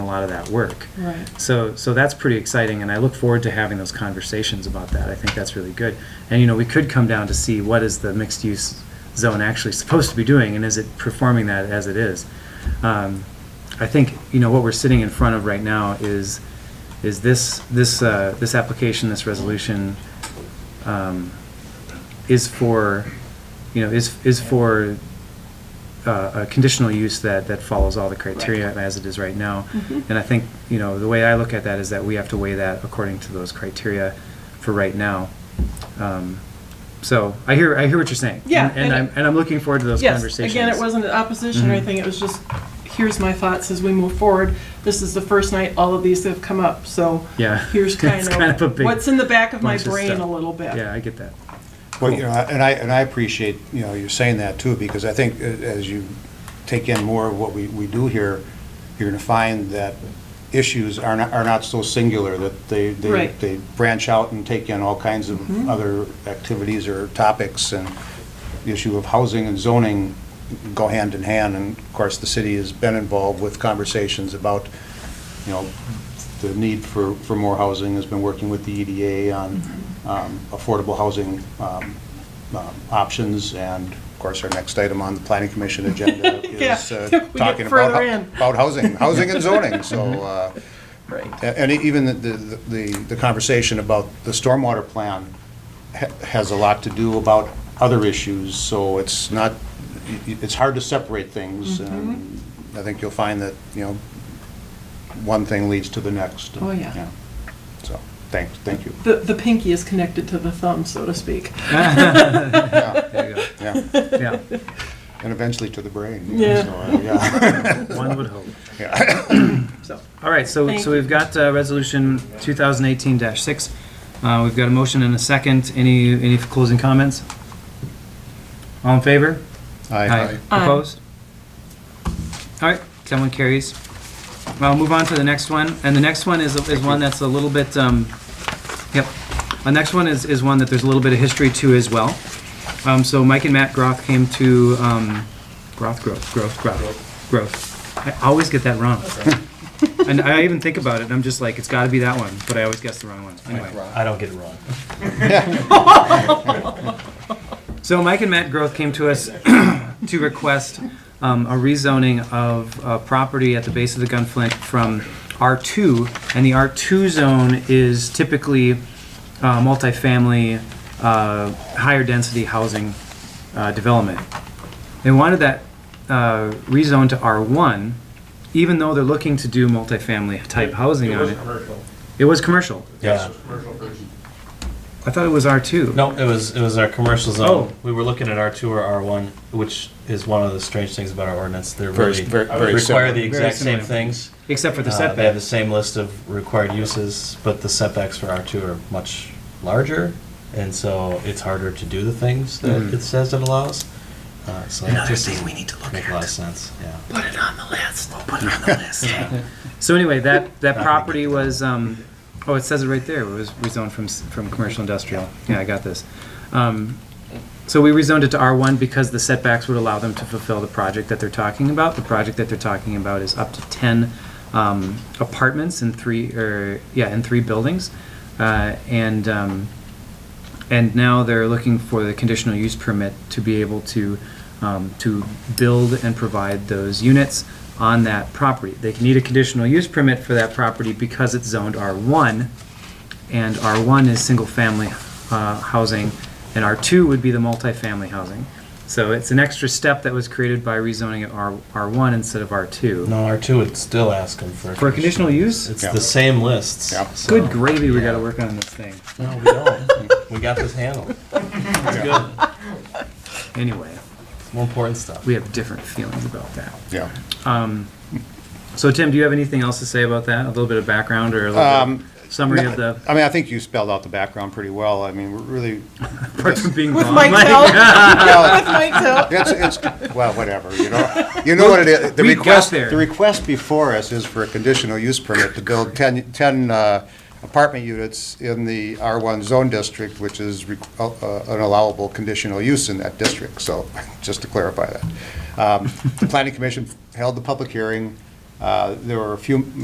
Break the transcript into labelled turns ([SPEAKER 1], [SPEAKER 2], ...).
[SPEAKER 1] lot of that work.
[SPEAKER 2] Right.
[SPEAKER 1] So, so that's pretty exciting, and I look forward to having those conversations about that. I think that's really good. And, you know, we could come down to see what is the mixed-use zone actually supposed to be doing, and is it performing that as it is? Um, I think, you know, what we're sitting in front of right now is, is this, this, uh, this application, this resolution, um, is for, you know, is, is for uh, a conditional use that, that follows all the criteria as it is right now.
[SPEAKER 2] Mhm.
[SPEAKER 1] And I think, you know, the way I look at that is that we have to weigh that according to those criteria for right now. Um, So I hear, I hear what you're saying.
[SPEAKER 2] Yeah,
[SPEAKER 1] And- And
[SPEAKER 2] and-
[SPEAKER 1] I'm, and I'm looking forward to those
[SPEAKER 2] Yes,
[SPEAKER 1] conversations.
[SPEAKER 2] again, it wasn't an opposition or
[SPEAKER 1] Mhm.
[SPEAKER 2] anything, it was just, here's my thoughts as we move forward. This is the first night all of these have come up, so
[SPEAKER 1] Yeah.
[SPEAKER 2] here's
[SPEAKER 1] It's kind
[SPEAKER 2] kind
[SPEAKER 1] of a
[SPEAKER 2] of
[SPEAKER 1] big
[SPEAKER 2] what's in the back of my
[SPEAKER 1] bunch of
[SPEAKER 2] brain a
[SPEAKER 1] stuff.
[SPEAKER 2] little bit.
[SPEAKER 1] Yeah, I get that.
[SPEAKER 3] Well, you know, and I, and I appreciate, you know, you saying that too, because I think a- as you take in more of what we, we do here, you're gonna find that issues are not, are not so singular, that they, they,
[SPEAKER 2] Right.
[SPEAKER 3] they branch out and take in all kinds of other activities or topics, and the issue of housing and zoning go hand in hand, and of course, the city has been involved with conversations about, you know, the need for, for more housing, has been working with the EDA on um, affordable housing um, um, options, and of course, our next item on the planning commission agenda
[SPEAKER 2] Yeah,
[SPEAKER 3] is uh,
[SPEAKER 2] we get
[SPEAKER 3] talking
[SPEAKER 2] further
[SPEAKER 3] about, hou-
[SPEAKER 2] in.
[SPEAKER 3] about housing, housing and zoning, so, uh,
[SPEAKER 2] Right.
[SPEAKER 3] a- and even the, the, the- the conversation about the stormwater plan ha- has a lot to do about other issues, so it's not, y- y- it's hard to separate things,
[SPEAKER 2] Mm-hmm.
[SPEAKER 3] and I think you'll find that, you know, one thing leads to the next.
[SPEAKER 2] Oh, yeah.
[SPEAKER 3] So, thanks, thank you.
[SPEAKER 2] The, the pinky is connected to the thumb, so to speak.
[SPEAKER 3] Yeah,
[SPEAKER 1] There you
[SPEAKER 3] yeah.
[SPEAKER 1] go. Yeah.
[SPEAKER 3] And eventually to the brain.
[SPEAKER 2] Yeah.
[SPEAKER 3] so, uh, yeah.
[SPEAKER 1] One would hope.
[SPEAKER 2] So,
[SPEAKER 1] All right, so,
[SPEAKER 2] Thank
[SPEAKER 1] so we've got uh, Resolution 2018-6. Uh, We've got a motion and a second. Any, any closing comments? All in favor?
[SPEAKER 3] Aye.
[SPEAKER 2] Aye.
[SPEAKER 1] Opposed? All right, that one carries. I'll move on to the next one, and the next one is, is one that's a little bit, um, yep. The next one is, is one that there's a little bit of history to as well. Um, so Mike and Matt Groth came to, um, Groth, Groth, Groth, Groth, Groth. I always get that wrong. And I even think about it, and I'm just like, it's gotta be that one, but I always guess the wrong one, anyway.
[SPEAKER 4] I don't get it wrong.
[SPEAKER 1] So Mike and Matt Groth came to us to request um, a rezoning of a property at the base of the Gunflint from R2, and the R2 zone is typically uh, multifamily, uh, higher density housing uh, development. They wanted that uh, rezoned to R1, even though they're looking to do multifamily type housing on it.
[SPEAKER 5] commercial.
[SPEAKER 1] It was commercial.
[SPEAKER 4] Yeah.
[SPEAKER 5] Commercial version.
[SPEAKER 1] I thought it was R2.
[SPEAKER 4] No, it was it was our commercial zone.
[SPEAKER 1] Oh.
[SPEAKER 4] We were looking at R two or R one, which is one of the strange things about our ordinance. They're
[SPEAKER 3] Very-
[SPEAKER 4] really
[SPEAKER 3] very- very
[SPEAKER 4] require
[SPEAKER 3] similar.
[SPEAKER 4] the exact
[SPEAKER 1] Very
[SPEAKER 4] same
[SPEAKER 1] similar.
[SPEAKER 4] things.
[SPEAKER 1] Except for the
[SPEAKER 4] Uh, They have the
[SPEAKER 1] setback.
[SPEAKER 4] same list of required uses, but the setbacks for R two are much larger, and so it's harder to do the things that
[SPEAKER 3] Mm-hmm.
[SPEAKER 1] Mhm.
[SPEAKER 4] it says it allows. Uh, so it just doesn't
[SPEAKER 1] need to
[SPEAKER 4] make a lot of sense. Yeah.
[SPEAKER 1] Put it on the list. Put it on the list. So anyway, that, that property was, um, oh, it says it right there. It was rezoned from, s- from commercial industrial. Yeah, I got this. Um, So we rezoned it to R1 because the setbacks would allow them to fulfill the project that they're talking about. The project that they're talking about is up to 10 um, apartments in three, or, yeah, in three buildings. Uh, And, um, and now they're looking for the conditional use permit to be able to, um, to build and provide those units on that property. They need a conditional use permit for that property because it's zoned R1, and R1 is single-family uh, housing, and R2 would be the multifamily housing. So it's an extra step that was created by rezoning it R, R1 instead of R2.
[SPEAKER 4] No, R two would still ask them for a
[SPEAKER 1] For a conditional use?
[SPEAKER 4] It's
[SPEAKER 3] Yeah.
[SPEAKER 4] the same lists.
[SPEAKER 3] Yeah.
[SPEAKER 4] so-
[SPEAKER 1] Good gravy, we gotta work on this thing.
[SPEAKER 4] No, we don't. we got this handled. It's good.
[SPEAKER 1] Anyway,
[SPEAKER 4] More important stuff.
[SPEAKER 1] we have different feelings about that.
[SPEAKER 3] Yeah.
[SPEAKER 1] Um, So Tim, do you have anything else to say about that? A little bit of background or a little
[SPEAKER 3] Um,
[SPEAKER 1] bit of summary of
[SPEAKER 3] No,
[SPEAKER 1] the,
[SPEAKER 3] I mean, I think you spelled out the background pretty well. I mean, we're really,
[SPEAKER 1] apart from being
[SPEAKER 2] With
[SPEAKER 1] wrong,
[SPEAKER 2] Mike's
[SPEAKER 1] Mike-
[SPEAKER 2] help,
[SPEAKER 3] well,
[SPEAKER 2] with Mike's help.
[SPEAKER 3] it's, it's, well, whatever, you know? You know what it is, the
[SPEAKER 1] We got
[SPEAKER 3] request,
[SPEAKER 1] there.
[SPEAKER 3] the request before us is for a conditional use permit to build 10, 10 uh, apartment units in the R1 zone district, which is re- uh, uh, an allowable conditional use in that district, so, just to clarify that. Um, The planning commission held the public hearing, Uh, there were a few